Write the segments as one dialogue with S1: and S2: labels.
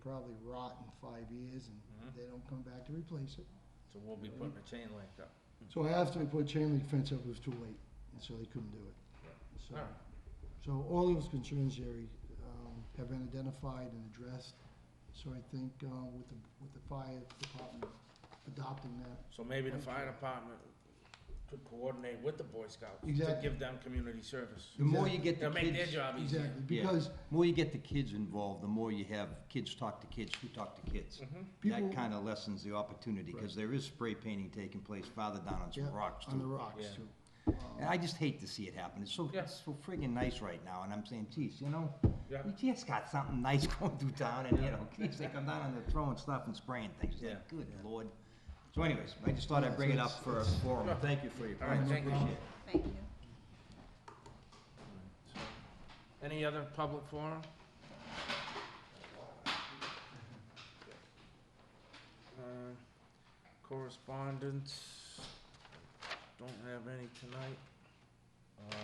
S1: probably rot in five years and
S2: Mhm.
S1: they don't come back to replace it.
S2: So we'll be putting a chain link up.
S1: So after we put chain link fence up, it was too late, and so they couldn't do it. So,
S2: Alright.
S1: so all those concerns, Jerry, um, have been identified and addressed. So I think, uh, with the, with the fire department adopting that,
S2: So maybe the fire department could coordinate with the Boy Scouts to
S1: Exactly.
S2: give them community service.
S3: The more you get the
S2: They'll make their
S3: kids, the
S2: job easier.
S1: exactly,
S3: Yeah.
S1: because
S3: more you get the kids involved, the more you have kids talk to kids who talk to kids.
S2: Mm-hmm.
S1: people
S3: That kind of lessens the opportunity, because there is spray painting taking place farther down on
S1: Yeah,
S3: some rocks
S1: on the
S3: too.
S1: rocks
S2: Yeah.
S1: too.
S3: And I just hate to see it happen. It's so,
S2: Yeah.
S3: it's so friggin' nice right now, and I'm saying, geez, you know,
S2: Yeah.
S3: we just got something nice going through town, and you know, kids, they come down and they're throwing stuff and spraying things. It's like,
S2: Yeah.
S3: Good lord. So anyways, I just thought I'd bring it up for a forum.
S2: Sure.
S3: Thank you for your
S2: All right,
S3: comments.
S2: thank you.
S3: Appreciate it.
S4: Thank you.
S2: Any other public forum? Uh, Correspondence, don't have any tonight. Uh,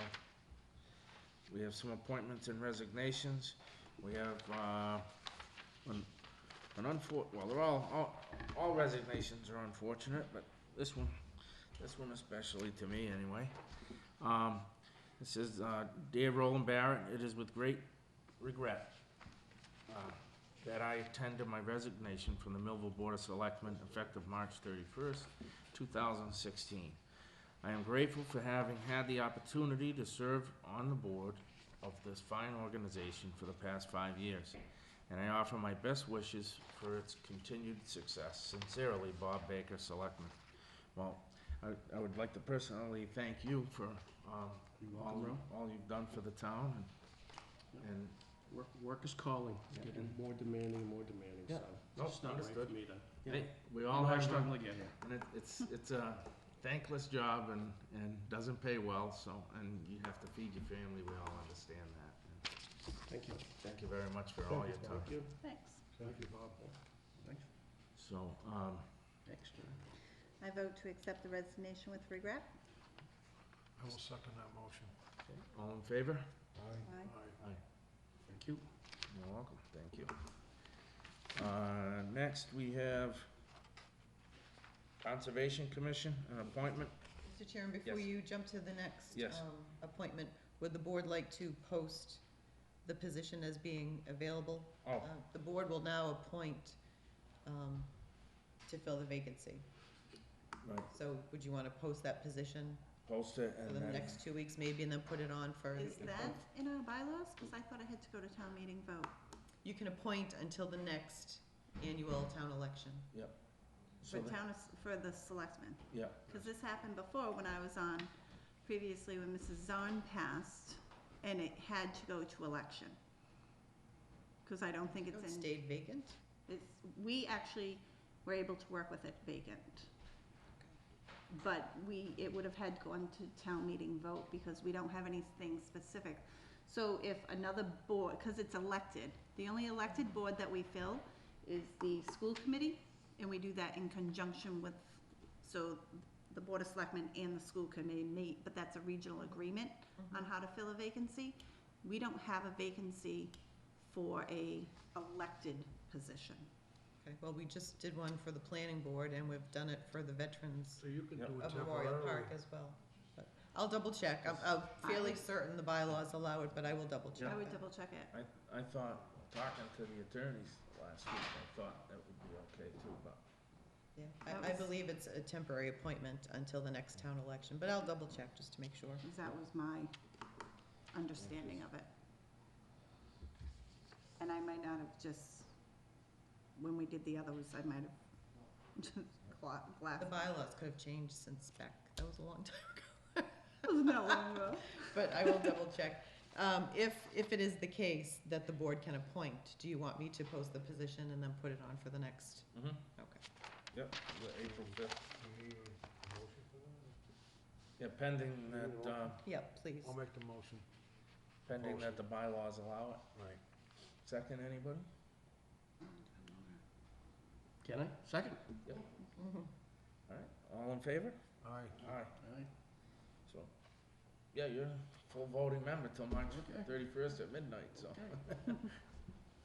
S2: We have some appointments and resignations. We have, uh, an an unfor, well, they're all, all, all resignations are unfortunate, but this one, this one especially to me, anyway. Um, it says, uh, Dear Roland Barrett, it is with great regret uh, that I tender my resignation from the Millville Board of Selectmen effective March 31st, 2016. I am grateful for having had the opportunity to serve on the board of this fine organization for the past five years, and I offer my best wishes for its continued success. Sincerely, Bob Baker, Selectman. Well, I- I would like to personally thank you for um, all you- all you've done for the town and- and
S5: Work, work is calling,
S2: Yeah.
S5: getting more demanding and more demanding,
S2: Yeah.
S5: so.
S2: Nope,
S5: It's not right
S2: understood.
S5: for me to.
S2: Hey, we
S5: You
S2: all
S5: know, I
S2: have, them,
S5: struggle again.
S2: and it- it's, it's a thankless job and, and doesn't pay well, so, and you have to feed your family, we all understand that. And
S5: Thank you.
S2: Thank you very much for all your time.
S5: Thank you.
S4: Thanks.
S5: Thank you, Bob. Thanks.
S2: So, um,
S5: Thanks, John.
S4: I vote to accept the resignation with regret.
S6: I will second that motion.
S2: all in favor?
S4: Aye.
S6: Aye.
S5: Thank you.
S2: You're welcome, thank you. Uh, next, we have Conservation Commission, an appointment.
S7: Mr. Chairman, before
S2: Yes.
S7: you jump to the next
S2: Yes.
S7: um, appointment, would the board like to post the position as being available?
S2: Oh,
S7: Uh, The board will now appoint um, to fill the vacancy.
S2: right,
S7: So would you want to post that position
S2: post it
S7: for
S2: and
S7: the
S2: then.
S7: next two weeks maybe and then put it on for?
S4: Is that in our bylaws? Because I thought I had to go to town meeting vote.
S7: You can appoint until the next annual town election.
S2: so
S4: For
S2: the-
S4: town, for the selectmen.
S2: Yeah,
S4: Because this happened before when I was on, previously when Mrs. Zarn passed, and it had to go to election. Because I don't think
S7: Oh, It
S4: it's in,
S7: stayed vacant?
S4: it's, we actually were able to work with it vacant. But we, it would have had gone to town meeting vote because we don't have anything specific. So if another board, because it's elected, the only elected board that we fill is the school committee, and we do that in conjunction with, so the board of selectmen and the school committee meet, but that's a regional agreement on how to fill a vacancy. We don't have a vacancy for a elected position.
S7: Okay, well, we just did one for the planning board and we've done it for the veterans.
S6: So you can
S2: Yep.
S6: do it
S7: of Memorial
S6: temporarily.
S7: Park as well. But I'll double check. I'm, I'm fairly certain the bylaws allow it, but I will double check.
S4: I would
S7: that.
S4: double check it.
S2: I, I thought, talking to the attorneys last week, I thought that would be okay too, but
S7: Yeah.
S4: That
S7: I, I
S4: was-
S7: believe it's a temporary appointment until the next town election, but I'll double check just to make sure.
S4: 'cause that was my understanding of it. And I might not have just, when we did the others, I might have just gla-
S7: The
S4: glassed.
S7: bylaws could have changed since back, that was a long time ago.
S4: Wasn't that long ago?
S7: But I will double check. Um, if, if it is the case that the board can appoint, do you want me to post the position and then put it on for the next?
S2: Mhm.
S7: Okay.
S2: Yep, the April fifth.
S6: Do you need a motion for that?
S2: Yeah, pending
S6: You need
S2: that,
S6: a
S2: uh,
S7: Yep, please.
S6: I'll make the motion.
S2: pending that
S6: Motion.
S2: the bylaws allow it.
S6: Right.
S2: Second, anybody?
S5: Can I? Second.
S7: Mhm.
S2: Alright, all in favor?
S6: Aye.
S2: Aye.
S5: Aye.
S2: So, yeah, you're a full voting member till March
S5: Okay.
S2: thirty-first at midnight, so.